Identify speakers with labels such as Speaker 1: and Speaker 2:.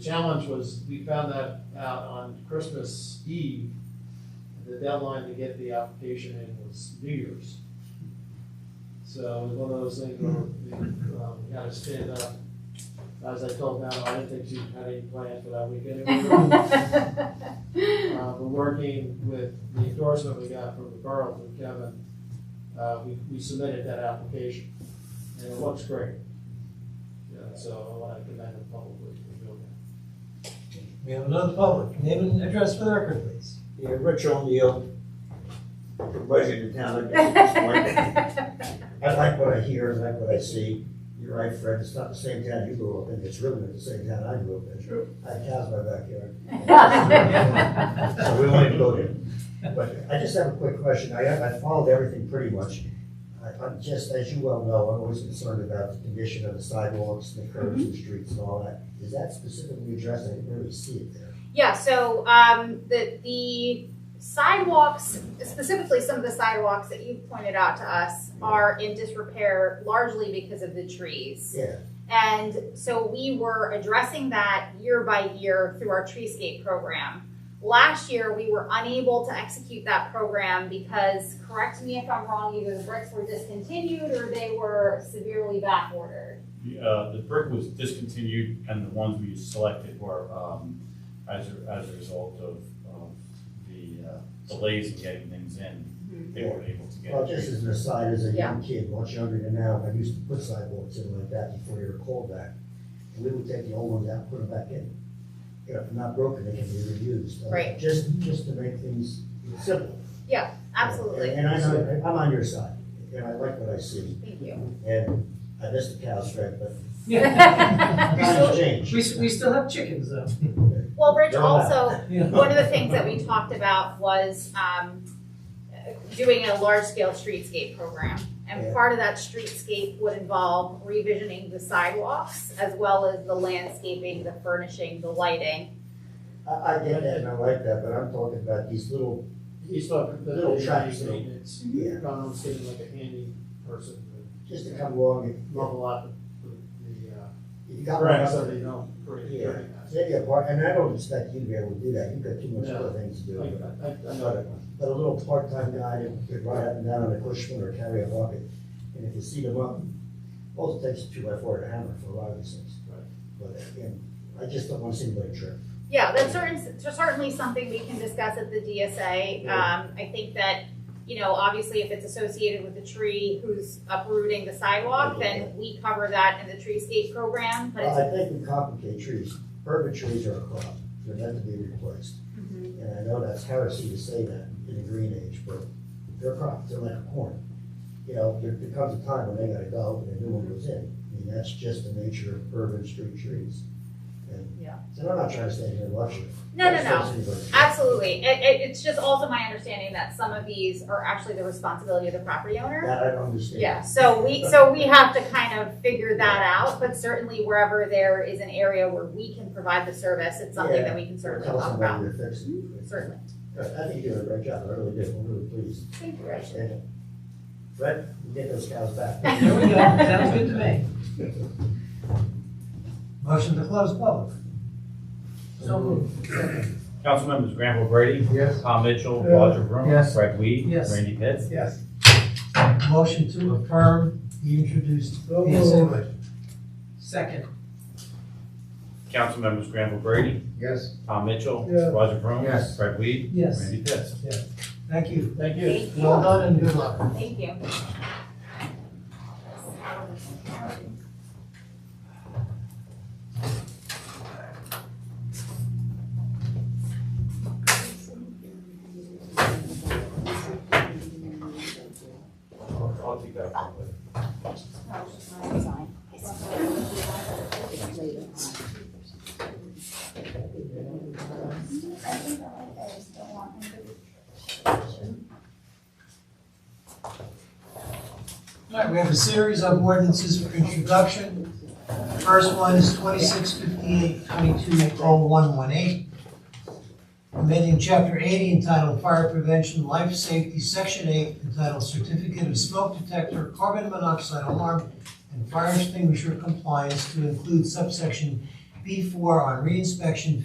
Speaker 1: challenge was, we found that out on Christmas Eve. The deadline to get the application in was New Year's. So it was one of those things where we, um, we had to stand up. As I told Madeline, I didn't think she had any plans for that weekend. We were, uh, we're working with the endorsement we got from the borough from Kevin. Uh, we, we submitted that application and it looks great. Yeah, so I want to commend them publicly for doing that.
Speaker 2: We have another public. Name and address for the record, please.
Speaker 3: Yeah, Rich O'Neill, resident of town. I guess, this morning. I like what I hear, I like what I see. You're right, Fred, it's not the same town you grew up in, it's really not the same town I grew up in. True. I have cows in my backyard. So we don't even go there. But I just have a quick question. I, I followed everything pretty much. I, I'm just, as you well know, I'm always concerned about the condition of the sidewalks, the curbs, the streets and all that. Is that specifically addressed? I didn't really see it there.
Speaker 4: Yeah, so um, the the sidewalks, specifically some of the sidewalks that you pointed out to us, are in disrepair largely because of the trees.
Speaker 3: Yeah,
Speaker 4: And so we were addressing that year by year through our treescape program. Last year, we were unable to execute that program because, correct me if I'm wrong, either the bricks were discontinued or they were severely backordered.
Speaker 5: The, uh, the brick was discontinued and the ones we selected were, um, as a, as a result of, of the uh, delays in getting things in. They weren't able to get.
Speaker 3: Well, just as an aside, as a young kid, much younger than now, I used to put sidewalks in like that before they were called that. And we would take the old ones out, and put them back in. You know, if they're not broken, they can be reused. Uh,
Speaker 4: Right.
Speaker 3: Just, just to make things simple.
Speaker 4: Absolutely.
Speaker 3: And I know, I'm on your side, and I like what I see,
Speaker 4: Thank you.
Speaker 3: and I miss the cows, Fred, but
Speaker 2: So-
Speaker 3: times change.
Speaker 2: We, s- we still have chickens though.
Speaker 4: well, Rich,
Speaker 3: They're
Speaker 4: also,
Speaker 2: Yeah.
Speaker 4: One of the things that we talked about was um, doing a large-scale streetscape program. And
Speaker 3: Yeah.
Speaker 4: part of that streetscape would involve revisioning the sidewalks as well as the landscaping, the furnishing, the lighting.
Speaker 3: I, I get that, and I like that, but I'm talking about these little,
Speaker 1: He's talking the
Speaker 3: Little
Speaker 1: little
Speaker 3: tracks,
Speaker 1: tracks
Speaker 3: though.
Speaker 1: maintenance.
Speaker 3: Yeah.
Speaker 1: Gone on skating like a handy person,
Speaker 3: just to come along and,
Speaker 1: but level up the, the, uh,
Speaker 3: you got one
Speaker 1: cracks
Speaker 3: up
Speaker 1: so
Speaker 3: there.
Speaker 1: they don't break
Speaker 3: Yeah.
Speaker 1: during that.
Speaker 3: Maybe a part, and I don't expect you to be able to do that, you've got too much
Speaker 1: No.
Speaker 3: other things to do.
Speaker 1: I,
Speaker 3: but-
Speaker 1: I, I know that.
Speaker 3: But but a little part-time guy that could ride up and down on a Cushman or carry a bucket, and if you see them up, all it takes is two by four and a hammer for a lot of these things.
Speaker 1: Right.
Speaker 3: But again, I just don't want to see anybody trip.
Speaker 4: Yeah, that's certain, certainly something we can discuss at the DSA. Um, I think that, you know, obviously if it's associated with the tree who's uprooting the sidewalk, then we cover that in the treescape program, but
Speaker 3: Well,
Speaker 4: it's.
Speaker 3: I think we complicate trees, urban trees are a crop, they're meant to be replaced.
Speaker 4: Mm-hmm.
Speaker 3: And I know that's heresy to say that in the green age, but they're crops, they're like corn. You know, there there comes a time when they gotta go, and a new one goes in. I mean, that's just the nature of urban street trees. And-
Speaker 4: Yeah.
Speaker 3: And I'm not trying to stay here and lecture.
Speaker 4: No, no,
Speaker 3: That's
Speaker 4: no.
Speaker 3: just anybody.
Speaker 4: Absolutely. It, it, it's just also my understanding that some of these are actually the responsibility of the property owner.
Speaker 3: That I don't understand.
Speaker 4: Yeah, so we, so we have to kind of figure that out, but certainly wherever there is an area where we can provide the service, it's something that we can
Speaker 3: Or
Speaker 4: certainly
Speaker 3: tell
Speaker 4: talk about.
Speaker 3: somebody to fix it.
Speaker 4: Certainly.
Speaker 3: I think you did a great job, I really did, I'm really pleased.
Speaker 4: Thank you, Rich.
Speaker 3: And Fred, you get those cows back.
Speaker 2: There we go. Sounds good to me. Motion to close public. So moved.
Speaker 5: Council members Granville Brady,
Speaker 3: Yes.
Speaker 5: Tom Mitchell,
Speaker 1: Yeah.
Speaker 5: Roger Broom,
Speaker 1: Yes.
Speaker 5: Fred Weed,
Speaker 2: Yes.
Speaker 5: Randy Pitts.
Speaker 1: Yes.
Speaker 2: Motion to affirm the introduced
Speaker 1: So
Speaker 2: PSA. Second.
Speaker 5: Council members Granville Brady,
Speaker 3: Yes.
Speaker 5: Tom Mitchell,
Speaker 1: Yeah.
Speaker 5: Roger Broom,
Speaker 3: Yes.
Speaker 5: Fred Weed,
Speaker 2: Yes.
Speaker 5: Randy Pitts.
Speaker 2: Thank you.
Speaker 1: Thank you.
Speaker 4: Thank
Speaker 2: Well
Speaker 4: you.
Speaker 2: done and good luck.
Speaker 4: Thank you.
Speaker 5: I'll I'll take that.
Speaker 2: All right, we have a series of ordinances for introduction. First one is twenty-six fifty-eight twenty-two oh one one eight. Amending chapter eighty entitled Fire Prevention, Life Safety, section eight entitled Certificate of Smoke Detector, Carbon Monoxide Alarm, and Fire Extinguisher Compliance to include subsection B four on reinspection